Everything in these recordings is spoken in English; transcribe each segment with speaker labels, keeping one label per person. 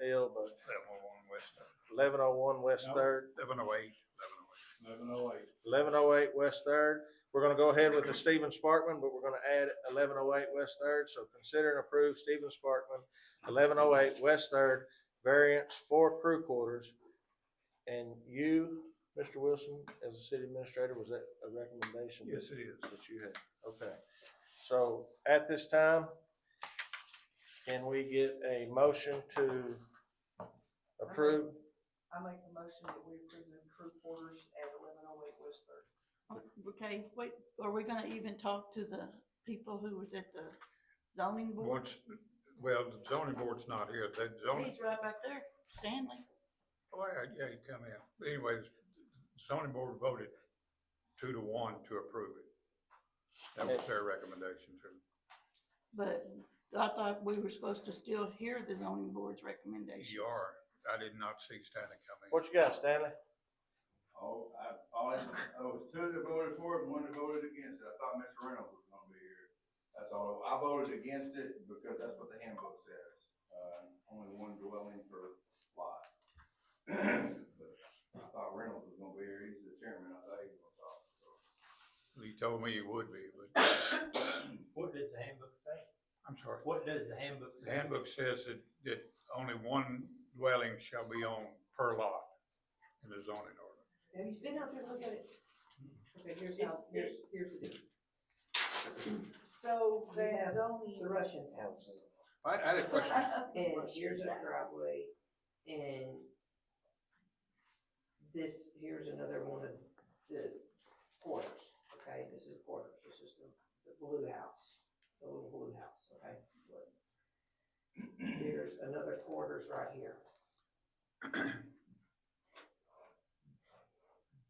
Speaker 1: Hill, but
Speaker 2: Seven oh one West,
Speaker 1: eleven oh one West
Speaker 3: No.
Speaker 1: Third,
Speaker 2: seven oh eight, eleven oh
Speaker 3: eleven oh
Speaker 2: eight.
Speaker 3: eight.
Speaker 1: eleven oh eight West Third. We're gonna go ahead with the Stephen Sparkman, but we're gonna add eleven oh eight West Third, so consider and approve Stephen Sparkman, eleven oh eight West Third, variance for crew quarters. And you, Mr. Wilson, as the city administrator, was that a recommendation?
Speaker 2: Yes, it is.
Speaker 1: that you had. Okay, so at this time, can we get a motion to approve
Speaker 4: I make the motion that we approve the crew quarters at eleven oh eight West Third.
Speaker 5: Okay, wait, are we gonna even talk to the people who was at the zoning board?
Speaker 2: Once, well, the zoning board's not here, the zoning,
Speaker 5: He's right back there, Stanley.
Speaker 2: oh, yeah, yeah, you come in. But Anyways, zoning board voted two to one to approve it. That was their recommendation too.
Speaker 5: But I thought we were supposed to still hear the zoning board's recommendations.
Speaker 2: You are, E I did not see Stanley coming.
Speaker 1: What you got, Stanley?
Speaker 6: Oh, I, all I, I was two that voted for it and one that voted against it. I thought Mr. Reynolds was gonna be here. That's all. I voted against it because that's what the handbook says. Uh, only one dwelling per lot. But I thought Reynolds was gonna be here. He's the chairman. I thought he was gonna talk, so.
Speaker 2: He told me he would be, but,
Speaker 7: What does the handbook say?
Speaker 2: I'm sorry.
Speaker 7: What does the handbook
Speaker 2: The
Speaker 7: say?
Speaker 2: handbook says that, that only one dwelling shall be on per lot in the zoning ordinance.
Speaker 4: Have you been out there to look at it? Okay, here's how, here's, here's the deal.
Speaker 8: So
Speaker 4: You have
Speaker 8: that zoning.
Speaker 4: It's a Russian's house.
Speaker 6: I, I had a question.
Speaker 4: And here's our driveway, and this, here's another one of the quarters, okay? This is quarters, this is the, the blue house, the little blue house, okay? Here's another quarters right here.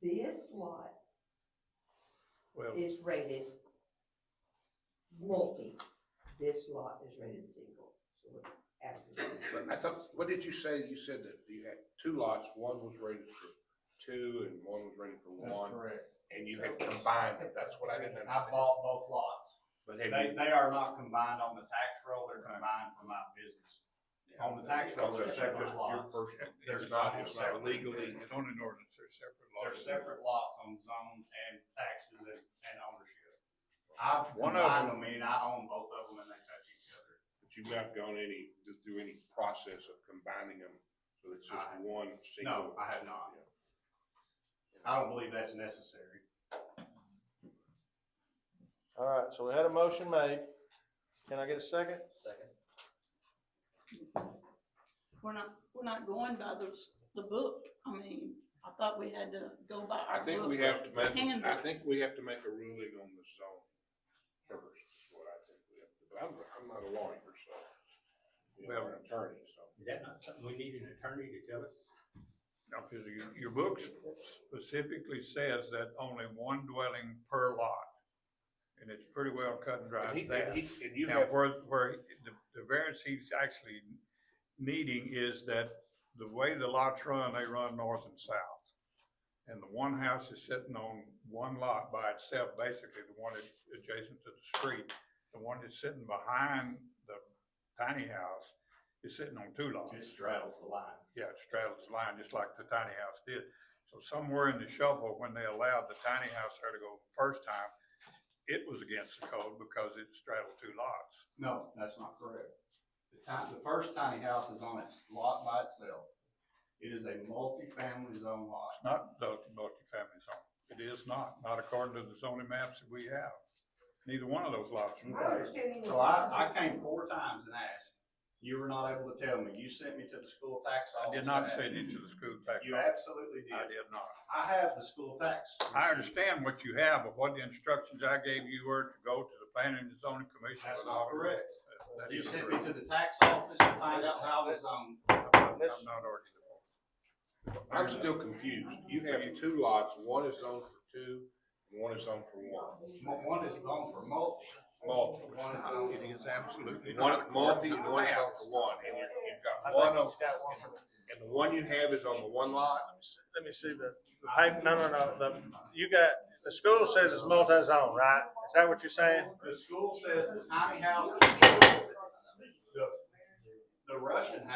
Speaker 4: This lot
Speaker 2: Well,
Speaker 4: is rated multi, this lot is rated single, so we're asking.
Speaker 9: But I thought, what did you say? You said that you had two lots, one was rated for two and one was rated for
Speaker 3: That's
Speaker 9: one,
Speaker 3: correct.
Speaker 9: and you had combined them. That's what I
Speaker 7: I
Speaker 9: didn't understand.
Speaker 7: bought both lots.
Speaker 9: But
Speaker 7: They,
Speaker 9: have
Speaker 7: they are not combined on the tax roll, they're combined for my business. On the tax roll,
Speaker 9: you,
Speaker 7: they're
Speaker 9: is that
Speaker 7: separate
Speaker 9: just your
Speaker 7: lots.
Speaker 9: personal?
Speaker 7: There's
Speaker 9: It's not,
Speaker 7: not
Speaker 9: it's
Speaker 7: separate.
Speaker 9: not legally,
Speaker 2: the zoning ordinance are separate
Speaker 7: They're
Speaker 2: laws.
Speaker 7: separate lots on zones and taxes and, and ownership. I
Speaker 2: One of
Speaker 7: combined them, and I own both of them, and they touch each other.
Speaker 9: but you've not gone any, through any process of combining them, so it's just
Speaker 7: I-
Speaker 9: one single.
Speaker 7: No, I have not. I don't believe that's necessary.
Speaker 1: All right, so we had a motion made. Can I get a second?
Speaker 3: Second.
Speaker 5: We're not, we're not going by those, the book. I mean, I thought we had to go by our book.
Speaker 9: I think we have to make, I
Speaker 5: handbooks.
Speaker 9: think we have to make a ruling on the zone first, is what I think we have to, but I'm, I'm not a lawyer, so. You know, I'm an attorney, so.
Speaker 7: Is that not something we need an attorney to tell us?
Speaker 2: No, because your, your book specifically says that only one dwelling per lot. And it's pretty well cut and
Speaker 9: And
Speaker 2: dry
Speaker 9: he,
Speaker 2: there.
Speaker 9: and he, and you
Speaker 2: Now,
Speaker 9: have
Speaker 2: where, where the, the variance he's actually needing is that the way the lots run, they run north and south. And the one house is sitting on one lot by itself, basically the one that's adjacent to the street. The one that's sitting behind the tiny house is sitting on two lots.
Speaker 7: It straddles the line.
Speaker 2: Yeah, it straddles the line, just like the tiny house did. So somewhere in the shuffle, when they allowed the tiny house there to go first time, it was against the code because it straddled two lots.
Speaker 7: No, that's not correct. The time, the first tiny house is on its lot by itself. It is a multifamily zone lot.
Speaker 2: It's not the multifamily zone. It is not, not according to the zoning maps that we have. Neither one of those lots. are
Speaker 4: My understanding.
Speaker 7: So I, I came four times and asked. You were not able to tell me. You sent me to the school tax
Speaker 2: I
Speaker 7: office.
Speaker 2: did not
Speaker 7: and
Speaker 2: send it
Speaker 7: asked.
Speaker 2: to the school tax
Speaker 7: You
Speaker 2: office.
Speaker 7: absolutely
Speaker 2: I
Speaker 7: did.
Speaker 2: did not.
Speaker 7: I have the school tax.
Speaker 2: I understand what you have, but what the instructions I gave you were to go to the planning and zoning commission.
Speaker 7: That's
Speaker 2: with
Speaker 7: not
Speaker 2: all-
Speaker 7: correct.
Speaker 2: That
Speaker 7: You
Speaker 2: is
Speaker 7: sent me
Speaker 2: correct.
Speaker 7: to the tax office to find out how um, it was on.
Speaker 2: I'm not- I'm
Speaker 1: Let's-
Speaker 2: not arguing.
Speaker 9: I'm still confused. You have two lots, one is zoned for two, and one is zoned for one.
Speaker 7: One is zoned for multi.
Speaker 9: Multi.
Speaker 7: One is zoned for-
Speaker 2: It is absolutely not.
Speaker 9: One, multi, and one is zoned for one, and you're, you've got one of, and the one you have is on the one lot?
Speaker 1: Let me see the, the paper, no, no, no, the, you got, the school says it's multi-zone, right? Is that what you're saying?
Speaker 7: The school says the tiny house, the, the Russian house